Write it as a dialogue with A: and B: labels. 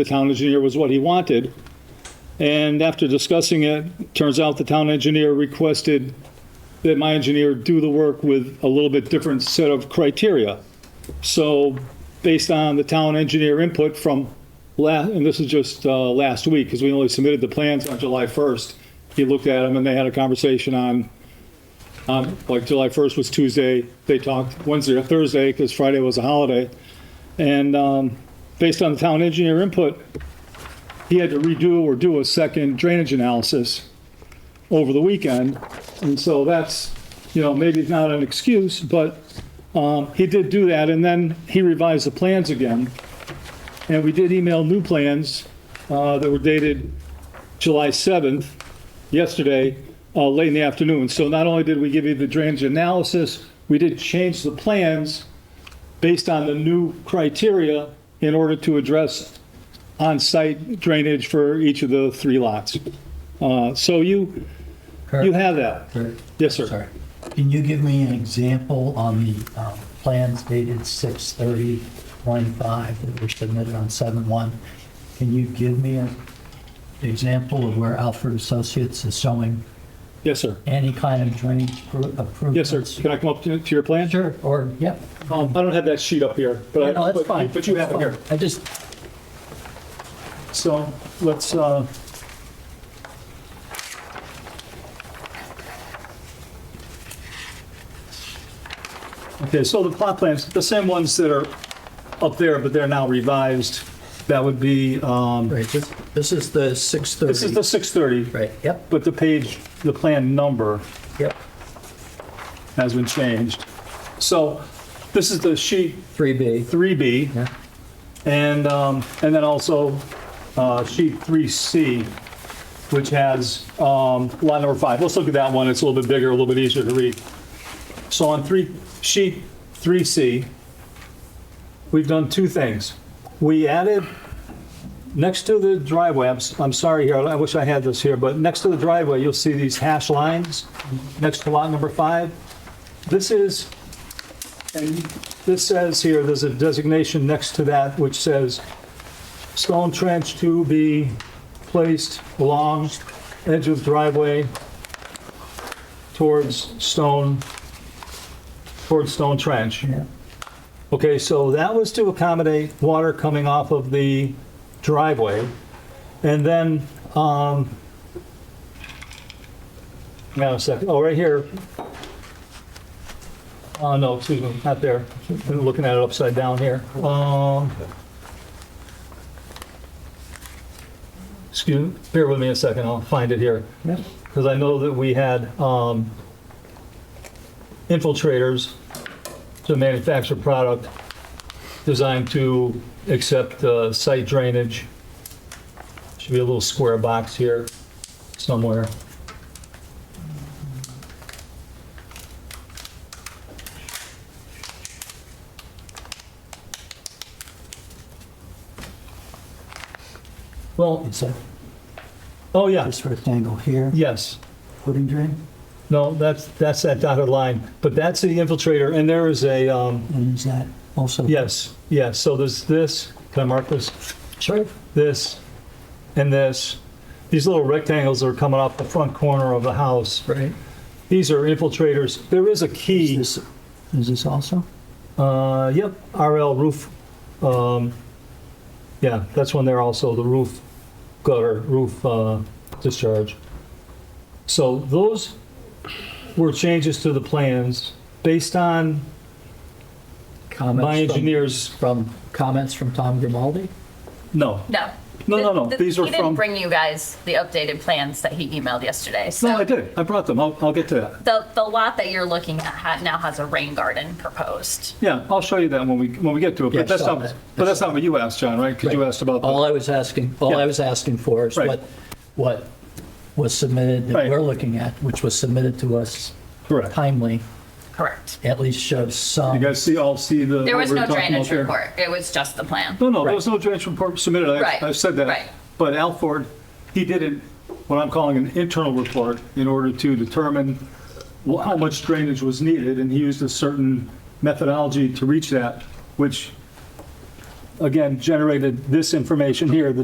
A: The town engineer was what he wanted. And after discussing it, turns out the town engineer requested that my engineer do the work with a little bit different set of criteria. So based on the town engineer input from la, and this is just uh, last week, because we only submitted the plans on July 1st. He looked at them and they had a conversation on, on, like July 1st was Tuesday. They talked Wednesday or Thursday, because Friday was a holiday. And um, based on the town engineer input, he had to redo or do a second drainage analysis over the weekend. And so that's, you know, maybe it's not an excuse, but um, he did do that, and then he revised the plans again. And we did email new plans uh, that were dated July 7th, yesterday, uh, late in the afternoon. So not only did we give you the drainage analysis, we did change the plans based on the new criteria in order to address on-site drainage for each of the three lots. Uh, So you, you have that.
B: Kurt,
A: Yes, sir.
B: Sorry. Can you give me an example on the um, plans dated 6/30/25 that were submitted on 7/1? Can you give me an example of where Alfred Associates is showing
A: Yes, sir.
B: any kind of drainage pro-
A: Yes,
B: improvements?
A: sir. Can I come up to to your plan?
B: Sure, or, yep.
A: Um, I don't have that sheet up here, but
B: No,
A: I,
B: that's fine.
A: but but you have
B: That's
A: it here.
B: fine. I just,
A: So let's, uh, okay, so the plot plans, the same ones that are up there, but they're now revised. That would be, um,
B: right, this- this is the 6/30.
A: this is the 630,
B: Right, yep,
A: but the page, the plan number
B: yep.
A: has been changed. So this is the sheet
B: 3B.
A: 3B.
B: Yeah.
A: And, um, and then also, uh, sheet 3C, which has, um, lot number five. Let's look at that one. It's a little bit bigger, a little bit easier to read. So on three, sheet 3C, we've done two things. We added, next to the driveway, I'm, s- I'm sorry here, I wish I had this here, but next to the driveway, you'll see these hash lines next to lot number five. This is and this says here, there's a designation next to that which says, "Stone trench to be placed along edge of driveway towards stone, towards stone trench."
B: Yeah.
A: Okay, so that was to accommodate water coming off of the driveway. And then, um, now a second, oh, right here. Oh, no, excuse me, not there. I'm looking at it upside down here. Um, excuse, bear with me a second, I'll find it here.
B: Yep.
A: Because I know that we had, um, infiltrators to manufacture product designed to accept uh, site drainage. Should be a little square box here somewhere. Well,
B: Is that
A: oh yeah,
B: this rectangle here,
A: yes.
B: footing drain?
A: No, that's, that's that dotted line, but that's the infiltrator, and there is a, um,
B: And is that also?
A: yes, yes, so there's this, can I mark this?
B: Sure.
A: this, and this. These little rectangles are coming off the front corner of the house.
B: Right.
A: These are infiltrators. There is a
B: Is
A: key,
B: this, is this also?
A: uh, yep, RL roof. Um, yeah, that's one there also, the roof gutter, roof, uh, discharge. So those were changes to the plans based on
B: Comments
A: my
B: from-
A: engineer's,
B: From, comments from Tom Grimaldi?
A: no,
C: No.
A: No, no, no.
C: The- the-
A: These are
C: He didn't
A: from-
C: bring you guys the updated plans that he emailed yesterday.
A: no, I
C: So
A: did. I brought them. I'll, I'll get to that.
C: the, the lot that you're looking at ha- now has a rain garden proposed.
A: Yeah, I'll show you that when we, when we get to it,
B: Yeah,
A: but that's
B: sure.
A: not, but that's not what you asked, John, right? Because you asked about,
B: All
A: the-
B: I was asking, all
A: Yeah.
B: I was asking for is
A: Right.
B: what, what was submitted that
A: Right.
B: we're looking at, which was submitted to us
A: correct.
B: timely,
C: Correct.
B: at least shows some.
A: You guys see, all see the.
C: There
A: what
C: was
A: we're
C: no
A: talking about
C: drainage
A: there?
C: report. It was just the plan.
A: No, no, there
B: Right.
A: was no drainage report submitted.
C: Right,
A: I, I said
C: right.
A: that. But Alford, he did it, what I'm calling an internal report in order to determine wh- how much drainage was needed, and he used a certain methodology to reach that, which again, generated this information here, the